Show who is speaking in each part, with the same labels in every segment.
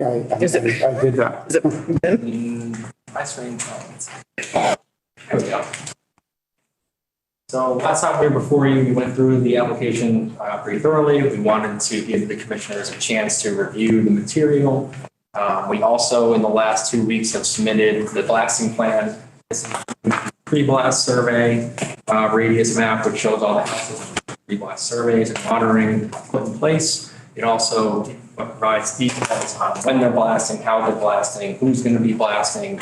Speaker 1: I, I I did that.
Speaker 2: Is it Ben?
Speaker 3: my screen. There we go. So last time we were before you, we went through the application uh, pretty thoroughly. We wanted to give the commissioners a chance to review the material. Um, We also, in the last two weeks, have submitted the blasting plan, this pre-blast survey, uh, radius map, which shows all the houses, pre-blast surveys and monitoring put in place. It also provides details on when they're blasting, how they're blasting, who's going to be blasting,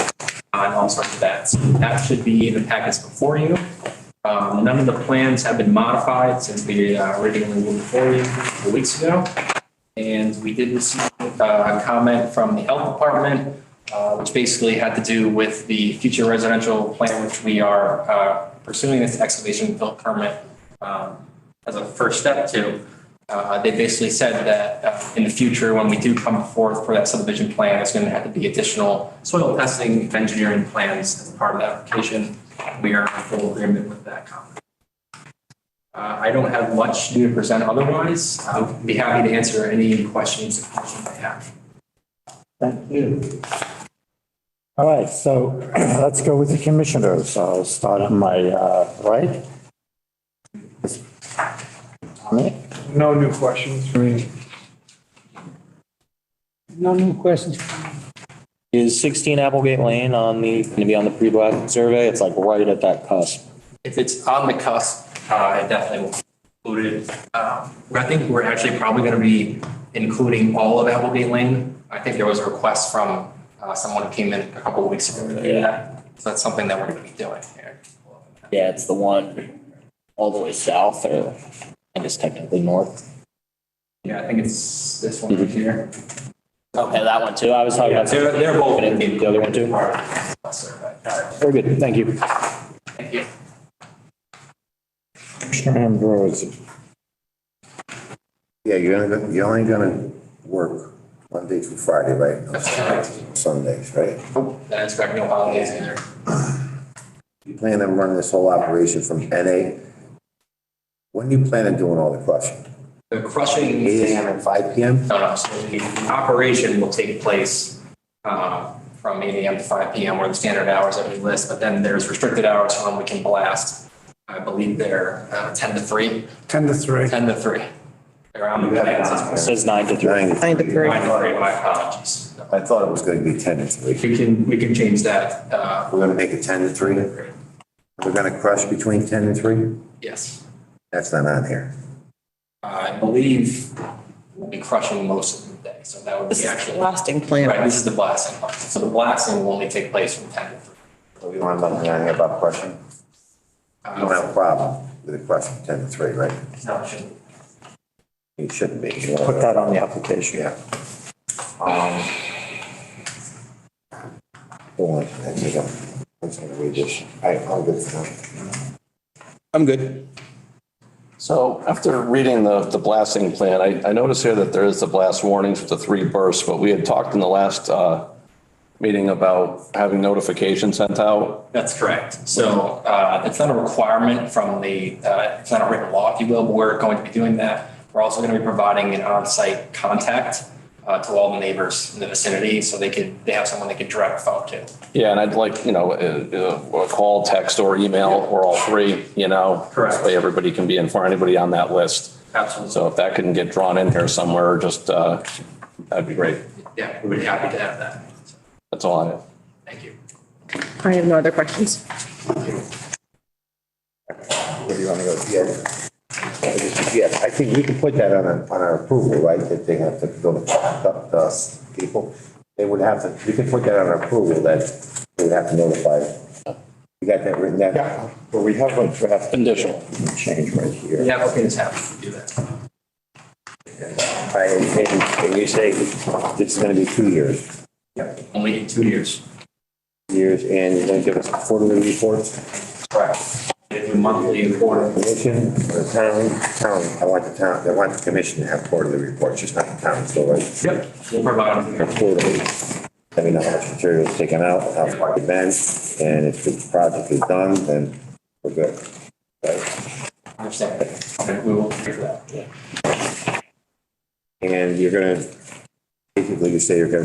Speaker 3: on all sorts of that. So That should be in the packets before you. Um, None of the plans have been modified since we uh, originally were before you a couple weeks ago. And we did receive uh, a comment from the health department, uh, which basically had to do with the future residential plan, which we are uh, pursuing this excavation built permit um, as a first step to. Uh, They basically said that uh, in the future, when we do come forth for that subdivision plan, it's going to have to be additional soil testing, and engineering plans as part of the application. We are in full agreement with that comment. Uh, I don't have much new to present otherwise. I'll be happy to answer any questions that you may have.
Speaker 4: Thank you. All right, so let's go with the commissioners. I'll start on my uh, right. Dominic?
Speaker 1: No new questions for me.
Speaker 5: No new questions.
Speaker 4: Is 16 Applegate Lane on the, going to be on the pre-blast survey? It's like right at that cusp.
Speaker 3: If it's on the cusp, uh, it definitely will be included. Um, I think we're actually probably going to be including all of Applegate Lane. I think there was a request from uh, someone who came in a couple of weeks ago. to do that. So that's something that we're going to be doing here.
Speaker 6: Yeah, it's the one all the way south or, I guess technically north.
Speaker 3: Yeah, I think it's this one
Speaker 6: Mm-hmm.
Speaker 3: right here.
Speaker 6: Okay, that one too. I was talking
Speaker 3: Yeah,
Speaker 6: about.
Speaker 3: they're, they're both.
Speaker 6: The other one too?
Speaker 3: Part of the survey. All right,
Speaker 4: Very good, thank you.
Speaker 3: Thank you.
Speaker 4: Commissioner Ambrose.
Speaker 7: Yeah, you're only, gonna- you're only gonna work Monday through Friday, right?
Speaker 3: That's correct.
Speaker 7: Sundays, right?
Speaker 3: And I expect no holidays either.
Speaker 7: You plan to run this whole operation from NA? When do you plan on doing all the crushing?
Speaker 3: The crushing.
Speaker 7: Eight AM and five PM?
Speaker 3: No, no, so the operation will take place uh, from eight AM to five PM or the standard hours that we list, but then there's restricted hours when we can blast. I believe they're uh, ten to three,
Speaker 1: 10 to 3.
Speaker 3: ten to three. Around the plans.
Speaker 6: It
Speaker 3: it's-
Speaker 6: says nine to three.
Speaker 7: Nine.
Speaker 2: Nine to three.
Speaker 3: Nine to three, my apologies.
Speaker 7: I thought it was gonna be ten to three.
Speaker 3: We can, we can change that, uh,
Speaker 7: We're gonna make it ten to three? We're gonna crush between ten and three?
Speaker 3: yes.
Speaker 7: That's not on here.
Speaker 3: I believe we'll be crushing most of the day, so that would
Speaker 2: This
Speaker 3: be
Speaker 2: is the
Speaker 3: actually.
Speaker 2: blasting plan.
Speaker 3: Right, this is the blasting part. So the blasting will only take place from ten to three.
Speaker 7: So we don't have nothing on here about crushing? You don't have a problem with the crushing ten to three, right?
Speaker 3: No, Uh, it shouldn't.
Speaker 7: You shouldn't be.
Speaker 4: Put that on the application.
Speaker 7: Yeah. Um. Hold on, I think I'm, I'm just gonna read this. I, I'm good for now.
Speaker 8: I'm good. So after reading the, the blasting plan, I, I noticed here that there is the blast warnings for the three bursts, but we had talked in the last, uh, meeting about having notification sent out.
Speaker 3: That's correct. So uh, it's not a requirement from the, uh, it's not a written law, if you will, but we're going to be doing that. We're also going to be providing an on-site contact uh, to all the neighbors in the vicinity so they could, they have someone they could direct phone to.
Speaker 8: Yeah, and I'd like, you know, uh, a, a call, text or email or all three, you know?
Speaker 3: Correct.
Speaker 8: That way everybody can be informed, anybody on that list.
Speaker 3: Absolutely.
Speaker 8: So if that can get drawn in here somewhere, just, uh, that'd be great.
Speaker 3: Yeah, we'd be happy to have that. So,
Speaker 8: That's all I have.
Speaker 3: Thank you.
Speaker 2: I have no other questions.
Speaker 7: Where do you wanna go? Yeah. I just- Yeah, I think we can put that on, a- on our approval, right, that they have to go to the, the people. They would have to, we can put that on our approval that they would have to notify. You got that written down?
Speaker 4: Yeah, but we have a draft
Speaker 8: Conditional.
Speaker 4: change right here.
Speaker 3: The applicants have to do that.
Speaker 7: Right, and, and you say this is gonna be two years.
Speaker 3: Only in two years.
Speaker 7: years, and you're gonna give us quarterly reports,
Speaker 3: Correct. They do monthly and quarterly.
Speaker 7: commission, or town, town, I want the town, I want the commission to have quarterly reports, just not the town, so like,
Speaker 3: Yep. We'll provide them.
Speaker 7: quarterly. Let me know how much material is taken out, how far it's been, and if the project is done, then we're good. Right?
Speaker 3: Understand. Okay, We will figure that.
Speaker 7: And you're gonna, basically, you say you're gonna